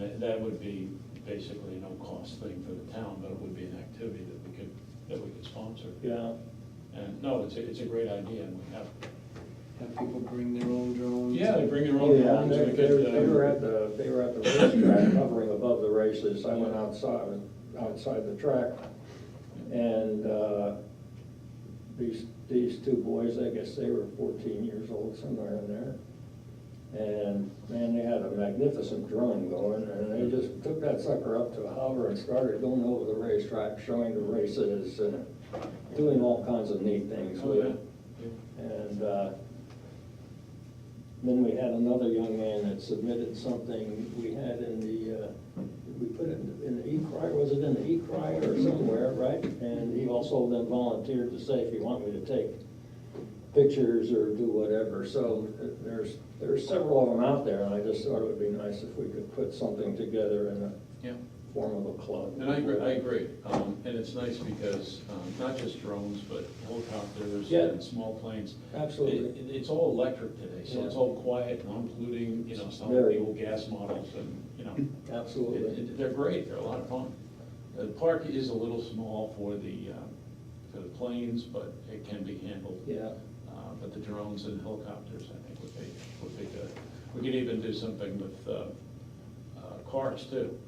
it- that would be basically a no-cost thing for the town, but it would be an activity that we could, that we could sponsor. Yeah, And, no, it's, a- it's a great idea, and we have, Have people bring their own drones? yeah, they bring their oh, own yeah, drones, they, we they could, they were uh, at the, they were at the racetrack, hovering above the races, I went outside, outside the track, and, uh, these, these two boys, I guess they were fourteen years old, somewhere in there, and, man, they had a magnificent drone going, and they just took that sucker up to a hover and started going over the racetrack, showing the races, and doing all kinds of neat things oh, with yeah. it. And uh, then we had another young man that submitted something we had in the, uh, we put it in the e-cry, was it in the e-cry or somewhere, right? And he also then volunteered to say, if you want me to take pictures or do whatever. So uh, there's, there's several of them out there, and I just thought it would be nice if we could put something together in a Yeah, form of a club. and I agree, I agree, um, and it's nice because, um, not just drones, but helicopters Yeah. and small planes. Absolutely. It- it- It's all electric today, so it's Yeah. all quiet, non-polluting, you know, some of Very. the old gas models and, you know. it- Absolutely. it- They're great, they're a lot of fun. The park is a little small for the, uh, for the planes, but it can be handled. Yeah. Uh, But the drones and helicopters, I think, would be, would be good. We could even do something with uh, uh, cars too.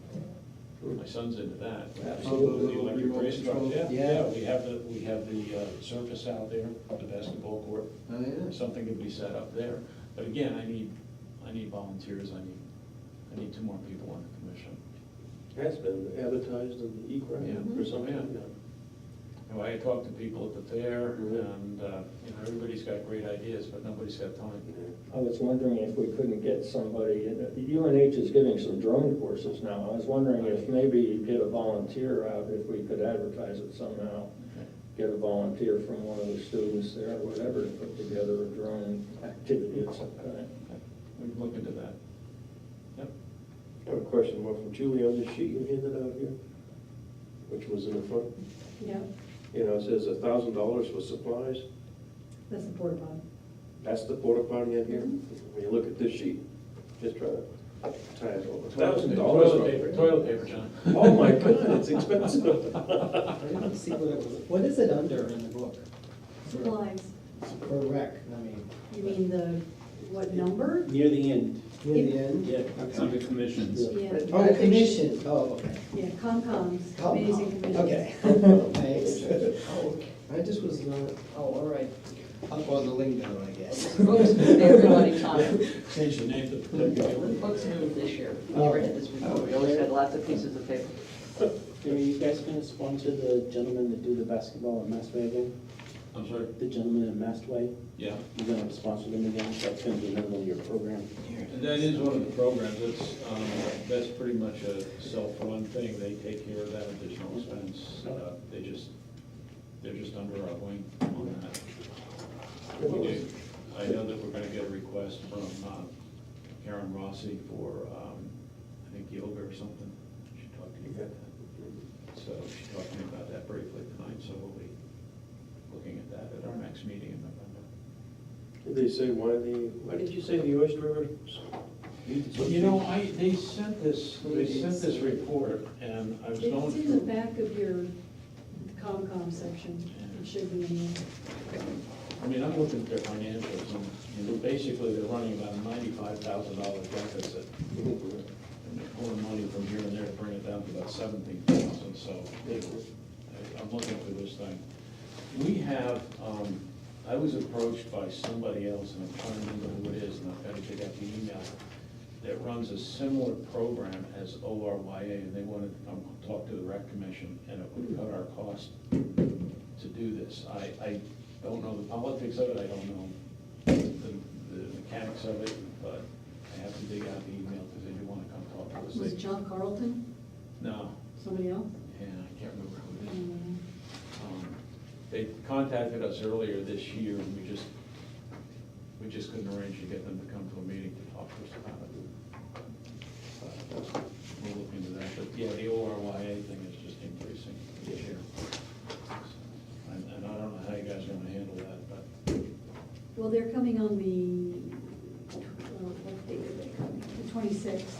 My son's into that. Absolutely. The electric race cars, yeah, yeah, Yeah. we have the, we have the uh, surface out there, the basketball court. Oh, yeah. Something could be set up there. But again, I need, I need volunteers, I need, I need two more people on the commission. Has been advertised in the e-crime Yeah. or something. Yeah. You know, I talk to people at the fair and, uh, you know, everybody's got great ideas, but nobody's got time. I was wondering if we couldn't get somebody, UNH is giving some drone courses now. I was wondering if maybe you'd get a volunteer out, if we could advertise it somehow. Get a volunteer from one of the students there, or whatever, to put together a drone activity of some kind. We can look into that. Yep. I have a question, more from Julie on this sheet you handed out here, which was in the front. Yeah, You know, it says a thousand dollars for supplies. that's the porta potty. That's the porta potty in here. When you look at this sheet, just try to tie it over. Thousand dollars. Toilet paper, toilet paper, John. Oh, my God, it's expensive. I didn't see what it was, what is it under in the book? For- Supplies, For rec, I mean, you mean the, what number? Near the end, near the end? yeah, it's under commissions. Yeah, Oh, commission, oh, okay. yeah, Concom's, Come amazing on. commission. Okay, thanks. I just was not Oh, all right. up on the lingo, I guess. Everybody taught it. Change the name to. The books moved this year. We never had this before. Uh, We always had lots of pieces of paper. Are you guys gonna sponsor the gentlemen that do the basketball at Mastway again? I'm sorry, The gentlemen at Mastway, yeah. you're gonna sponsor them again, that's gonna be another one of your program. And That is one of the programs, that's, um, that's pretty much a self-run thing, they take care of that additional expense, uh, they just, they're just under our wing on that. We do, I know that we're gonna get a request from, um, Karen Rossi for, um, I think yoga or something, she talked to you about that. So she talked to me about that briefly tonight, so we'll be looking at that at our next meeting in November. Did they say why the, why did you say the Oyster River? needed something? You know, I, they sent this, they sent this report, and I was going It's in the through. back of your Concom section, it should be in there. I mean, I'm looking at their financials, and, you know, basically, they're running about a ninety-five thousand dollar deficit. And they're pulling money from here and there to bring it down to about seventeen thousand, so they- I- I'm looking for this thing. We have, um, I was approached by somebody else, and I'm trying to remember who it is, and I've gotta dig out the email, that runs a similar program as ORYA, and they wanted to come talk to the rec commission, and it would cut our cost to do this. I, I don't know the politics of it, I don't know the the mechanics of it, but I have to dig out the email because they do want to come talk to us. Was it They- John Carlton, No, somebody else? yeah, I can't remember who it is. Mm, Um, They contacted us earlier this year, and we just, we just couldn't arrange to get them to come to a meeting to talk to us about it. But We'll look into that, but yeah, the ORYA thing is just increasing this year. And and I don't know how you guys are gonna handle that, but. Well, they're coming on the, uh, what date are they coming? The twenty-sixth.